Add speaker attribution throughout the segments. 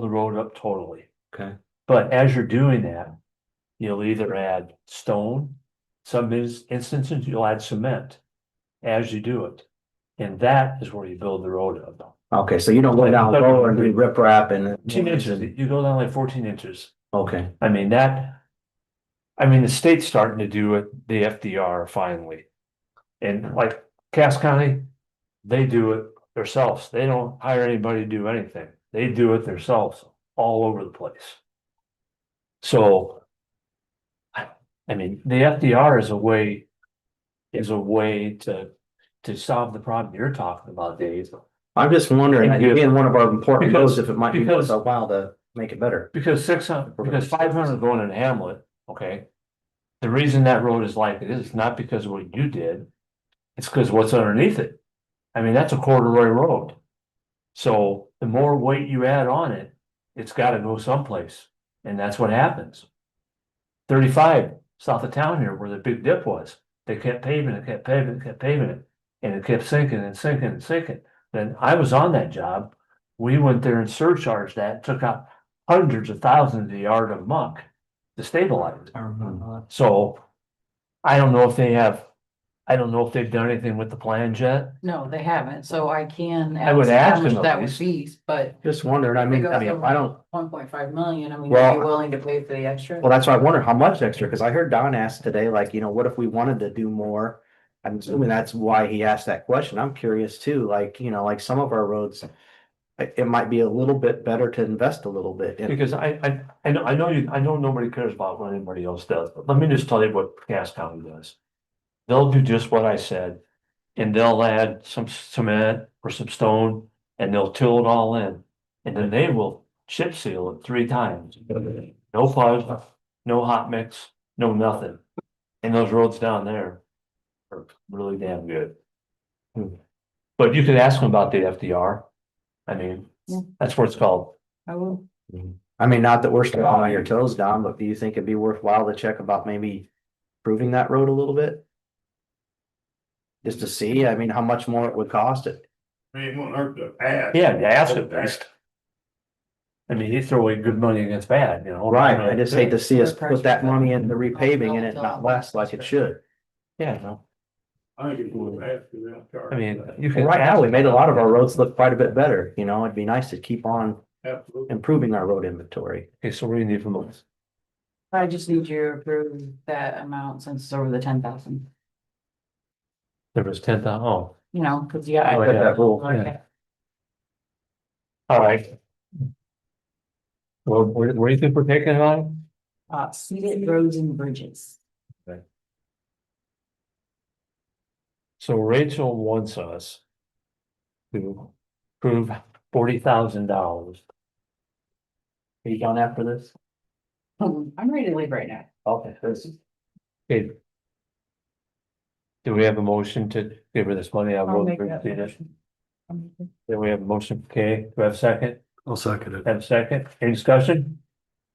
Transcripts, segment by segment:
Speaker 1: the road up totally.
Speaker 2: Okay.
Speaker 1: But as you're doing that, you'll either add stone, some ins- instances you'll add cement as you do it. And that is where you build the road up.
Speaker 2: Okay, so you don't go down low and do riprap and.
Speaker 1: Fourteen inches, you go down like fourteen inches.
Speaker 2: Okay,
Speaker 1: I mean, that. I mean, the state's starting to do it, the FDR finally. And like Cass County, they do it themselves. They don't hire anybody to do anything. They do it themselves all over the place. So. I, I mean, the FDR is a way. Is a way to, to solve the problem you're talking about, Dave.
Speaker 2: I'm just wondering,
Speaker 1: Thank you.
Speaker 2: being one of our important
Speaker 1: Because-
Speaker 2: codes, if it might be
Speaker 1: because-
Speaker 2: worth a while to make it better.
Speaker 1: Because six hundred, because five hundred going in Hamlet, okay? The reason that road is like it is not because of what you did. It's because what's underneath it. I mean, that's a corduroy road. So the more weight you add on it, it's gotta go someplace, and that's what happens. Thirty-five, south of town here where the big dip was, they kept paving it, kept paving it, kept paving it. And it kept sinking and sinking and sinking. Then I was on that job. We went there and surcharged that, took out hundreds of thousands a yard of muck to stabilize it.
Speaker 2: I remember
Speaker 1: So I don't know if they have, I don't know if they've done anything with the plans yet.
Speaker 3: No, they haven't, so I can.
Speaker 1: I would ask
Speaker 3: how much
Speaker 1: them at
Speaker 3: That would
Speaker 1: least.
Speaker 3: be, but
Speaker 2: Just wondered, I mean,
Speaker 3: Because
Speaker 2: I mean, I don't,
Speaker 3: one point five million, I mean,
Speaker 2: Well,
Speaker 3: are you willing to pay for the extra?
Speaker 2: well, that's why I wondered how much extra, because I heard Don ask today, like, you know, what if we wanted to do more? I'm assuming that's why he asked that question. I'm curious too, like, you know, like some of our roads. It, it might be a little bit better to invest a little bit in.
Speaker 1: Because I, I, I know, I know you, I know nobody cares about what anybody else does, but let me just tell you what Cass County does. They'll do just what I said. And they'll add some cement or some stone and they'll till it all in. And then they will chip seal it three times. No fuzz, no hot mix, no nothing. And those roads down there are really damn good. But you could ask them about the FDR. I mean,
Speaker 3: Yeah.
Speaker 1: that's what it's called.
Speaker 3: I will,
Speaker 2: I mean, not that we're stepping on your toes, Don, but do you think it'd be worthwhile to check about maybe improving that road a little bit? Just to see, I mean, how much more it would cost it.
Speaker 4: It won't hurt to ask.
Speaker 1: Yeah, you ask at least. I mean, you throw away good money against bad, you know.
Speaker 2: Right, I just hate to see us put that money into repaving and it not last like it should.
Speaker 1: Yeah, no,
Speaker 4: I think it's worth asking them.
Speaker 1: I mean, you
Speaker 2: Well,
Speaker 1: can.
Speaker 2: Right now,
Speaker 1: ask
Speaker 2: we made a
Speaker 1: them.
Speaker 2: lot of our roads look quite a bit better, you know, it'd be nice to keep on
Speaker 4: Absolutely.
Speaker 2: improving our road inventory.
Speaker 1: Okay, so what do you need from us?
Speaker 3: I just need you to approve that amount since it's over the ten thousand,
Speaker 1: There was ten thousand, oh,
Speaker 3: you know, cause you got.
Speaker 1: Oh, yeah.
Speaker 2: That rule.
Speaker 3: Okay.
Speaker 1: all right. Well, where, where do you think we're taking it on?
Speaker 3: Uh, seated roads and bridges,
Speaker 1: So Rachel wants us. To prove forty thousand dollars.
Speaker 2: Are you gone after this?
Speaker 3: Um, I'm ready to leave right now.
Speaker 2: Okay, this is-
Speaker 1: Okay. Do we have a motion to give her this money? I
Speaker 3: I'll
Speaker 1: will.
Speaker 3: make that
Speaker 1: Then
Speaker 3: motion. I'll make it.
Speaker 1: we have a motion, okay, do I have a second?
Speaker 5: I'll second it.
Speaker 1: Have a second, any discussion?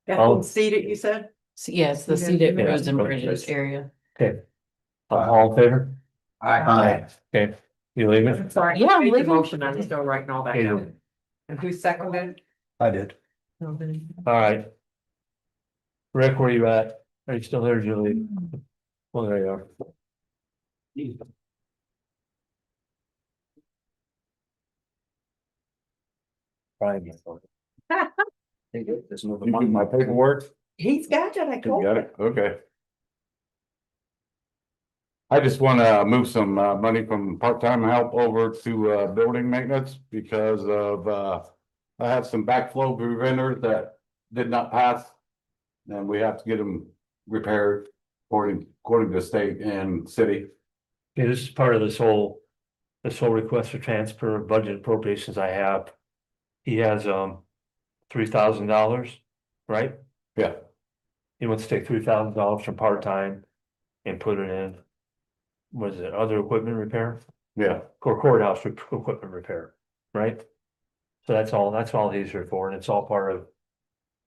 Speaker 1: I'll-
Speaker 6: That seated, you said?
Speaker 3: So, Yes, the
Speaker 6: Yeah,
Speaker 3: seated
Speaker 1: yeah,
Speaker 3: roads and
Speaker 1: roads and
Speaker 3: bridges
Speaker 1: bridges.
Speaker 3: area,
Speaker 1: Okay. Uh, All in favor?
Speaker 2: Aye.
Speaker 1: Okay, you leave it?
Speaker 6: Sorry.
Speaker 3: Yeah, I'm
Speaker 6: Made the
Speaker 3: leaving.
Speaker 6: Motion, I'm still writing all that.
Speaker 1: Yeah.
Speaker 6: down. And who seconded?
Speaker 5: I did.
Speaker 3: Mm-hmm.
Speaker 1: All right. Rick, where you at? Are you still there, Julie? Well, there you are. Brian.
Speaker 2: Just move the
Speaker 5: You
Speaker 2: money.
Speaker 5: need my paperwork?
Speaker 6: He's got it, I
Speaker 5: You
Speaker 6: told
Speaker 5: got
Speaker 6: him.
Speaker 5: it? Okay. I just want to move some uh, money from part-time help over to uh, building maintenance because of, uh, I have some backflow preventers that did not pass. And we have to get them repaired according, according to state and city.
Speaker 1: Yeah, This is part of this whole, this whole request for transfer of budget appropriations I have. He has, um, three thousand dollars, right?
Speaker 5: Yeah.
Speaker 1: He wants to take three thousand dollars from part-time and put it in. Was it other equipment repair?
Speaker 5: Yeah,
Speaker 1: or courthouse rep- equipment repair, right? So that's all, that's all these are for, and it's all part of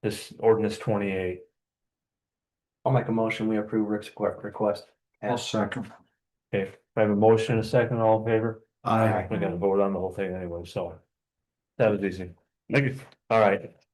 Speaker 1: this ordinance twenty-eight.
Speaker 2: I'll make a motion, we approve Rick's requ- request.
Speaker 5: second.
Speaker 1: Okay, I have a motion, and a second, all in favor?
Speaker 5: Aye.
Speaker 1: We're gonna vote on the whole thing anyway, so. That was easy. Thank you. All right,